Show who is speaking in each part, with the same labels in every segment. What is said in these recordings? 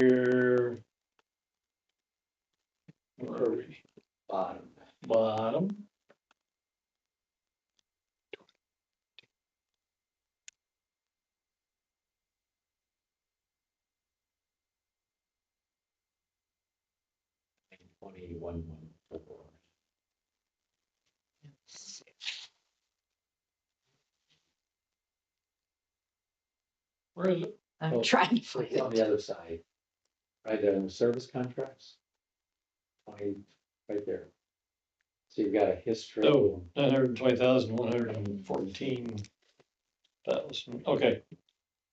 Speaker 1: year. Where are we?
Speaker 2: bottom.
Speaker 1: Bottom.
Speaker 2: Twenty-one, one, four.
Speaker 1: Where is it?
Speaker 2: Oh.
Speaker 3: I'm trying to find
Speaker 2: It's on the
Speaker 3: it.
Speaker 2: other side. Right there, in the service contracts. Twenty, right there. So you've got a history.
Speaker 1: Oh, nine hundred and twenty thousand, one hundred and fourteen. Thousand, okay.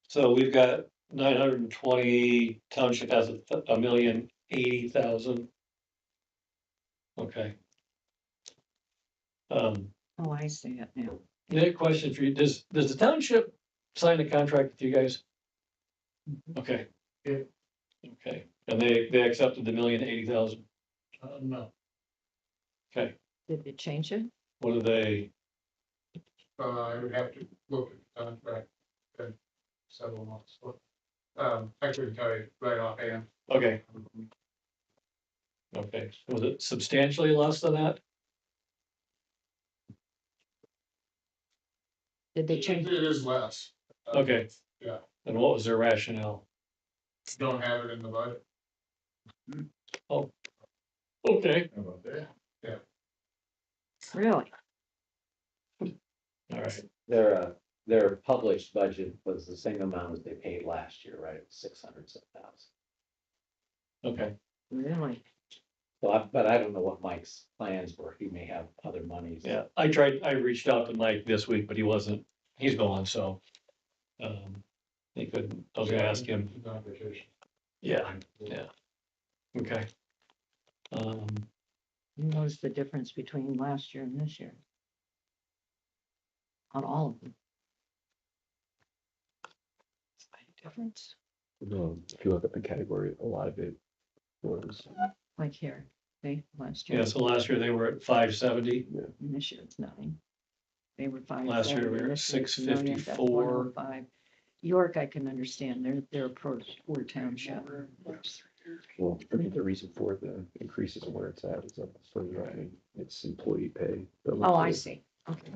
Speaker 1: So we've got nine hundred and twenty, township has a, th- a million eighty thousand. Okay. Um,
Speaker 3: Oh, I see it now.
Speaker 1: Nick, question for you, does, does the township sign a contract with you guys? Okay.
Speaker 4: Yeah.
Speaker 1: Okay, and they, they accepted the million eighty thousand,
Speaker 4: Uh, no,
Speaker 3: Did they change it?
Speaker 1: what do they,
Speaker 4: uh, I would have to look at the contract, uh, several months, but, um, I couldn't tell you right offhand.
Speaker 1: okay, okay, was it substantially less than that?
Speaker 3: Did they change?
Speaker 4: It is less. Uh,
Speaker 1: Okay.
Speaker 4: Yeah.
Speaker 1: And what was their rationale?
Speaker 4: Don't have it in the budget.
Speaker 1: Okay.
Speaker 4: How about that?
Speaker 3: Really?
Speaker 1: All right,
Speaker 2: Their, uh, their published budget was the same amount as they paid last year, right? Six hundred some thousand.
Speaker 1: okay,
Speaker 3: Really?
Speaker 2: So I, but I don't know what Mike's plans were. He may have other monies.
Speaker 1: yeah, I tried, I reached out to Mike this week, but he wasn't, he's gone, so. Um, he couldn't, I was gonna ask him,
Speaker 4: He's on vacation.
Speaker 1: yeah, okay. Um,
Speaker 3: You notice the difference between last year and this year? On all of them? Difference,
Speaker 5: Um, if you look at the category, a lot of it was,
Speaker 3: like here, they, last year,
Speaker 1: yeah, so last year they were at five seventy,
Speaker 3: and this year it's nine. They were five.
Speaker 1: Last year we were at 654.
Speaker 3: oh Five. York, I can understand, they're, they're a poor, poor township.
Speaker 5: well, I think the reason for the increases and where it's at is up further, I mean, it's employee pay. The
Speaker 3: Oh, I
Speaker 5: employee-
Speaker 3: see, okay,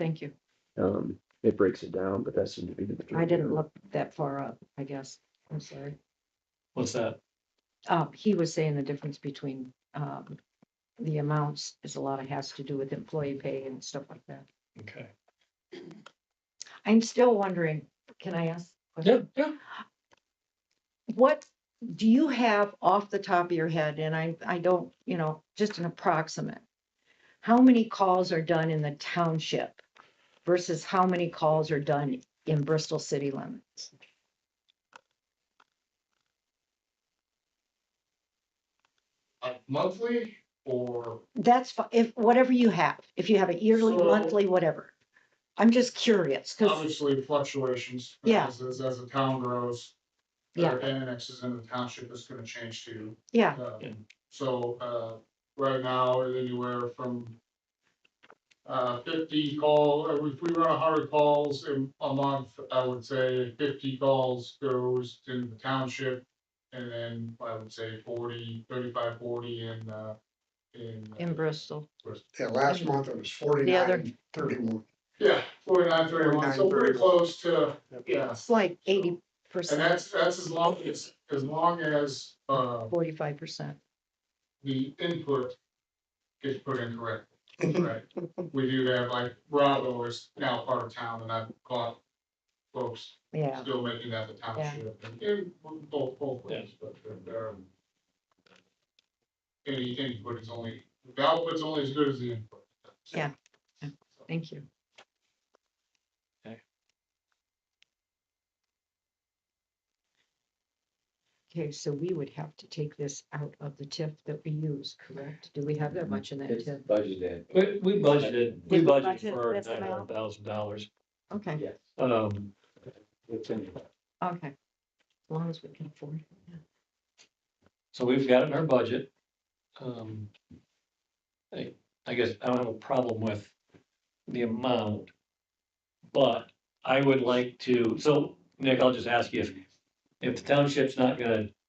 Speaker 3: thank you.
Speaker 5: Um, it breaks it down, but that seemed to be the.
Speaker 3: I didn't look that far up, I guess. I'm sorry.
Speaker 1: what's that?
Speaker 3: Uh, he was saying the difference between, um, the amounts is a lot of has to do with employee pay and stuff like that.
Speaker 1: Okay.
Speaker 3: I'm still wondering, can I ask? a question?
Speaker 1: yeah.
Speaker 3: What do you have off the top of your head? And I, I don't, you know, just an approximate. How many calls are done in the township versus how many calls are done in Bristol city limits?
Speaker 4: Uh, Monthly or
Speaker 3: That's fi- if, whatever you have, if you have a yearly,
Speaker 4: So-
Speaker 3: monthly, whatever. I'm just curious, because,
Speaker 4: obviously fluctuations.
Speaker 3: Yeah.
Speaker 4: As, as as the town grows.
Speaker 3: yeah,
Speaker 4: their Annexes in the township is gonna change too.
Speaker 3: yeah,
Speaker 4: Uh,
Speaker 1: Yeah.
Speaker 4: So, uh, right now, it's anywhere from uh, fifty call, uh, if we run a hundred calls in a month, I would say fifty calls goes to the township. And then I would say 40, 35, 40 in, uh, in.
Speaker 3: in Bristol.
Speaker 6: Yeah, last month it was
Speaker 3: The other,
Speaker 6: forty-nine, thirty-one.
Speaker 4: Yeah, forty-nine, thirty-one, so
Speaker 6: 49,
Speaker 4: pretty
Speaker 6: 31.
Speaker 4: close to, yeah,
Speaker 3: it's like eighty
Speaker 4: and
Speaker 3: percent,
Speaker 4: that's, that's as long, as as long as, uh,
Speaker 3: forty-five percent.
Speaker 4: the input gets put in correctly. Right, we do have, like, Bravo is now part of town, and I've caught folks
Speaker 3: Yeah,
Speaker 4: still making that the township, and in both, both ways, but, um, any input is only, the output's only as good as the input.
Speaker 3: Yeah. thank you.
Speaker 1: Okay.
Speaker 3: Okay, so we would have to take this out of the TIF that we use, correct? Do we have that much in that
Speaker 2: It's
Speaker 3: TIF?
Speaker 2: budgeted,
Speaker 1: We, we budgeted, we
Speaker 3: Did we
Speaker 1: budgeted
Speaker 3: budget
Speaker 1: for
Speaker 3: this
Speaker 1: nine
Speaker 3: amount?
Speaker 1: hundred thousand dollars.
Speaker 3: Okay,
Speaker 2: yes.
Speaker 1: Um,
Speaker 2: It's in there.
Speaker 3: okay. As long as we can afford. it.
Speaker 1: So we've got it in our budget. Um, I, I guess I don't have a problem with the amount. But I would like to, so Nick, I'll just ask you if, If the township's not gonna